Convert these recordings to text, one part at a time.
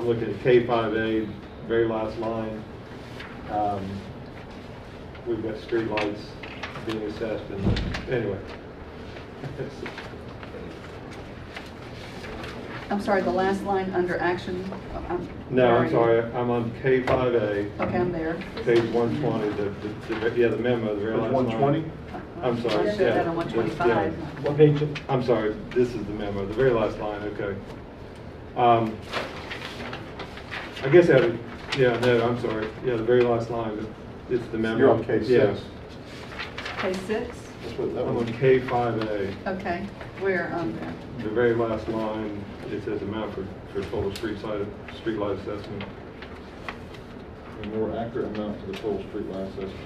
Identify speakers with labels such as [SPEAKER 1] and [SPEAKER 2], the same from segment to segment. [SPEAKER 1] I'm looking at K5A, very last line. Um, We've got streetlights being assessed and, anyway.
[SPEAKER 2] I'm sorry, the last line under action. I'm-
[SPEAKER 1] No, I'm sorry, I'm on K5A,
[SPEAKER 2] Okay, I'm there.
[SPEAKER 1] page 120, the- the, the, yeah, the memo, the very last line.
[SPEAKER 3] 120?
[SPEAKER 1] I'm sorry,
[SPEAKER 2] I showed that
[SPEAKER 1] yeah,
[SPEAKER 2] on 125.
[SPEAKER 1] yeah.
[SPEAKER 3] What page?
[SPEAKER 1] I'm sorry, this is the memo, the very last line, okay. Um, I guess I, would- yeah, no, I'm sorry, yeah, the very last line, but it's the memo.
[SPEAKER 3] You're on K
[SPEAKER 1] Yeah.
[SPEAKER 3] six.
[SPEAKER 2] Okay, six?
[SPEAKER 3] That's what that
[SPEAKER 1] I'm on
[SPEAKER 3] was.
[SPEAKER 1] K5A,
[SPEAKER 2] Okay, where um, on there?
[SPEAKER 1] the very last line, it says amount for, for total street side, street light assessment.
[SPEAKER 4] a more accurate amount to the total street line assessment.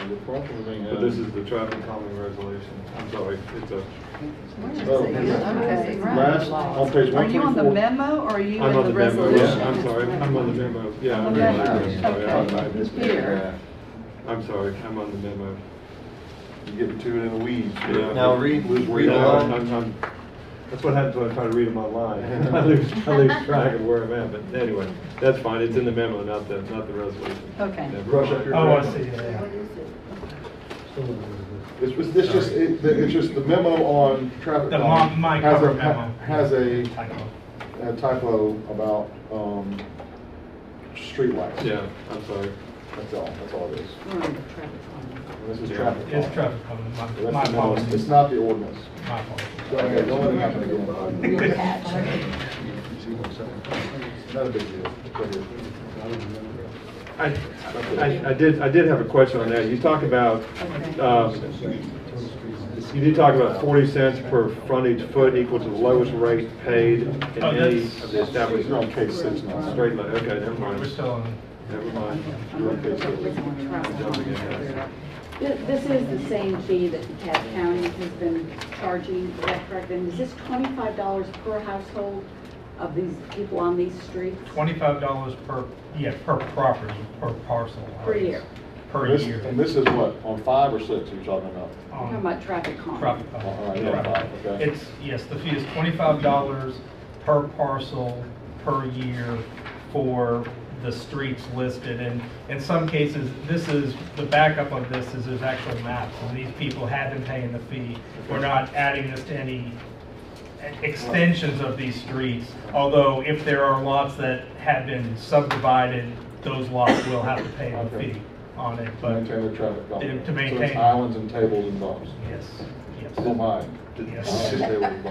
[SPEAKER 4] And the problem with being.
[SPEAKER 1] But this is the traffic calming resolution, I'm sorry, it's a,
[SPEAKER 2] Where is it?
[SPEAKER 4] Oh.
[SPEAKER 2] Okay, right.
[SPEAKER 4] Last, on page
[SPEAKER 2] Are you on the
[SPEAKER 4] 124.
[SPEAKER 2] memo or are you
[SPEAKER 1] I'm
[SPEAKER 2] in
[SPEAKER 1] on
[SPEAKER 2] the
[SPEAKER 1] the memo, yeah,
[SPEAKER 2] resolution?
[SPEAKER 1] I'm sorry, I'm on the memo, yeah. I'm
[SPEAKER 2] Okay,
[SPEAKER 1] really sorry, I'm-
[SPEAKER 2] okay.
[SPEAKER 1] I missed it.
[SPEAKER 2] Here.
[SPEAKER 1] I'm sorry, I'm on the memo.
[SPEAKER 3] You're getting too in the weeds.
[SPEAKER 1] Yeah.
[SPEAKER 5] Now read-
[SPEAKER 3] Lose where
[SPEAKER 5] read
[SPEAKER 3] you
[SPEAKER 1] Yeah,
[SPEAKER 5] along.
[SPEAKER 3] are.
[SPEAKER 1] I'm- I'm- That's what happens when I try to read them online. I lose, I lose track of where I'm at, but anyway, that's fine, it's in the memo, not the, not the resolution.
[SPEAKER 2] Okay.
[SPEAKER 1] Never
[SPEAKER 3] Brush
[SPEAKER 1] mind.
[SPEAKER 3] up your-
[SPEAKER 6] Oh, I see, yeah.
[SPEAKER 4] It's just, it's just, it- the- it's just the memo on traffic.
[SPEAKER 6] The
[SPEAKER 4] law
[SPEAKER 6] mon- my
[SPEAKER 4] has a-
[SPEAKER 6] cover memo.
[SPEAKER 4] Has a
[SPEAKER 6] Typo.
[SPEAKER 4] a typo about, um, streetlights.
[SPEAKER 1] Yeah, I'm sorry.
[SPEAKER 4] That's all, that's all it is.
[SPEAKER 2] We're
[SPEAKER 7] Hmm.
[SPEAKER 2] on the traffic line.
[SPEAKER 4] And This is
[SPEAKER 1] Yeah.
[SPEAKER 4] traffic. law.
[SPEAKER 6] It's traffic calming, my, my
[SPEAKER 4] That's the memo. It's
[SPEAKER 6] apologies,
[SPEAKER 4] not the ordinance.
[SPEAKER 6] my apologies.
[SPEAKER 4] Go ahead, don't let it happen again. Not a big deal. Go ahead.
[SPEAKER 1] I, I, I did, I did have a question on that. You talk about,
[SPEAKER 2] Okay.
[SPEAKER 1] um, you did talk about forty cents per frontage foot equal to the lowest rate paid in
[SPEAKER 6] Oh,
[SPEAKER 1] any
[SPEAKER 6] that's-
[SPEAKER 1] of the established.
[SPEAKER 4] You're on case six now.
[SPEAKER 1] Straight line, okay, never
[SPEAKER 6] We're
[SPEAKER 1] mind,
[SPEAKER 6] still on,
[SPEAKER 1] never mind.
[SPEAKER 2] I'm on the traffic line.
[SPEAKER 7] Th- This is the same fee that DeKalb County has been charging, is that correct? And is this twenty-five dollars per household of these people on these streets?
[SPEAKER 6] twenty-five dollars per, yeah, per property, per parcel. I
[SPEAKER 7] Per
[SPEAKER 6] guess.
[SPEAKER 7] year.
[SPEAKER 6] Per
[SPEAKER 4] This-
[SPEAKER 6] year.
[SPEAKER 4] And this is what, on five or six you're talking about?
[SPEAKER 6] Um,
[SPEAKER 7] Talking about traffic calming.
[SPEAKER 6] Traffic
[SPEAKER 4] All right,
[SPEAKER 6] calming.
[SPEAKER 4] Oh, yeah,
[SPEAKER 6] Right.
[SPEAKER 4] five, okay.
[SPEAKER 6] It's, yes, the fee is twenty-five dollars per parcel, per year for the streets listed. And in some cases, this is, the backup of this is there's actual maps, and these people have been paying the fee. We're not adding this to any extensions of these streets, although if there are lots that have been subdivided, those lots will have to pay a
[SPEAKER 4] Okay.
[SPEAKER 6] fee on it,
[SPEAKER 4] To
[SPEAKER 6] but,
[SPEAKER 4] Maintain the traffic. calm.
[SPEAKER 6] To- to
[SPEAKER 4] So it's
[SPEAKER 6] maintain.
[SPEAKER 4] islands and tables and bumps.
[SPEAKER 6] yes,
[SPEAKER 4] Oh
[SPEAKER 6] yes.
[SPEAKER 4] my.
[SPEAKER 6] Yes.
[SPEAKER 5] Do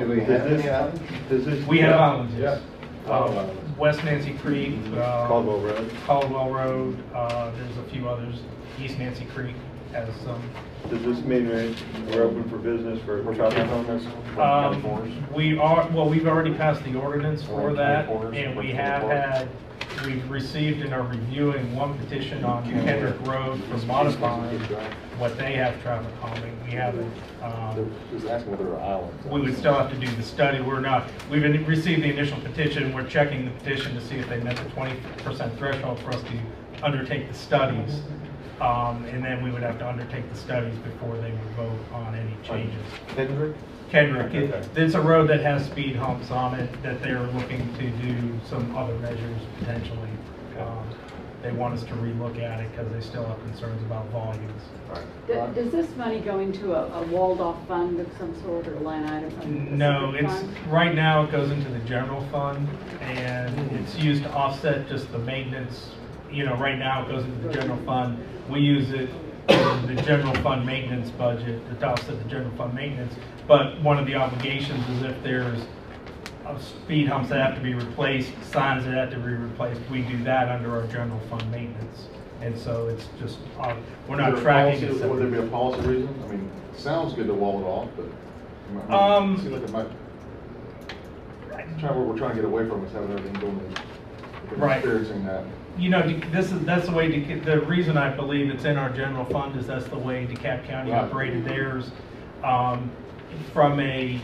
[SPEAKER 5] we have any islands?
[SPEAKER 1] Does this-
[SPEAKER 6] We have um, islands, yes.
[SPEAKER 4] Yeah.
[SPEAKER 6] Uh, West Nancy Creek,
[SPEAKER 1] Mm-hmm.
[SPEAKER 6] uh,
[SPEAKER 1] Caldwell Road.
[SPEAKER 6] Caldwell Road, uh, there's a few others, East Nancy Creek has some.
[SPEAKER 1] Does this mean we're- we're open for business for
[SPEAKER 4] We're
[SPEAKER 1] traffic
[SPEAKER 4] talking
[SPEAKER 1] calming?
[SPEAKER 4] about this?
[SPEAKER 6] Um, we are, well, we've already passed the ordinance for
[SPEAKER 4] Or
[SPEAKER 6] that,
[SPEAKER 4] twenty-fours,
[SPEAKER 6] and we
[SPEAKER 4] or
[SPEAKER 6] have had, we've received and are reviewing one petition on Kendrick Road for modifying what they have traffic calming. We haven't, um,
[SPEAKER 4] Just asking whether there are islands.
[SPEAKER 6] we would still have to do the study. We're not, we've been- received the initial petition, we're checking the petition to see if they met the twenty percent threshold for us to undertake the studies. Um, and then we would have to undertake the studies before they would vote on any changes.
[SPEAKER 5] Kendrick?
[SPEAKER 6] Kendrick, it- it's a road that has speed humps on it, that they're looking to do some other measures potentially. Um, They want us to relook at it because they still have concerns about volumes.
[SPEAKER 7] D- Does this money go into a a walled-off fund of some sort or line item? of a
[SPEAKER 6] No,
[SPEAKER 7] specific
[SPEAKER 6] it's,
[SPEAKER 7] fund?
[SPEAKER 6] right now it goes into the general fund and it's used to offset just the maintenance. You know, right now it goes into the general fund. We use it, in the general fund maintenance budget, to offset the general fund maintenance. But one of the obligations is if there's uh, speed humps that have to be replaced, signs that have to be replaced, we do that under our general fund maintenance. And so it's just, uh, we're
[SPEAKER 4] Is
[SPEAKER 6] not
[SPEAKER 4] there a
[SPEAKER 6] tracking
[SPEAKER 4] policy-
[SPEAKER 6] it.
[SPEAKER 4] Would there
[SPEAKER 6] separately.
[SPEAKER 4] be a policy reason? I mean, sounds good to wall it off, but. it might-
[SPEAKER 6] Um,
[SPEAKER 4] Seems like it might, try, what we're trying to get away from is having everything going, in-
[SPEAKER 6] Right.
[SPEAKER 4] experiencing that.
[SPEAKER 6] You know, De- this is, that's the way, Deca- the reason I believe it's in our general fund is that's the way DeKalb County
[SPEAKER 4] Right.
[SPEAKER 6] operated theirs. Um, From a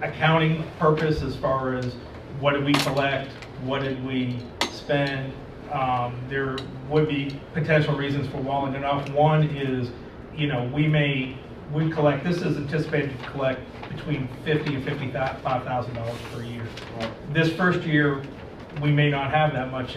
[SPEAKER 6] accounting purpose, as far as what did we collect, what did we spend, um, there would be potential reasons for walling it off. One is, you know, we may, we collect, this is anticipated to collect between fifty and fifty-five thousand dollars per year. This first year, we may not have that much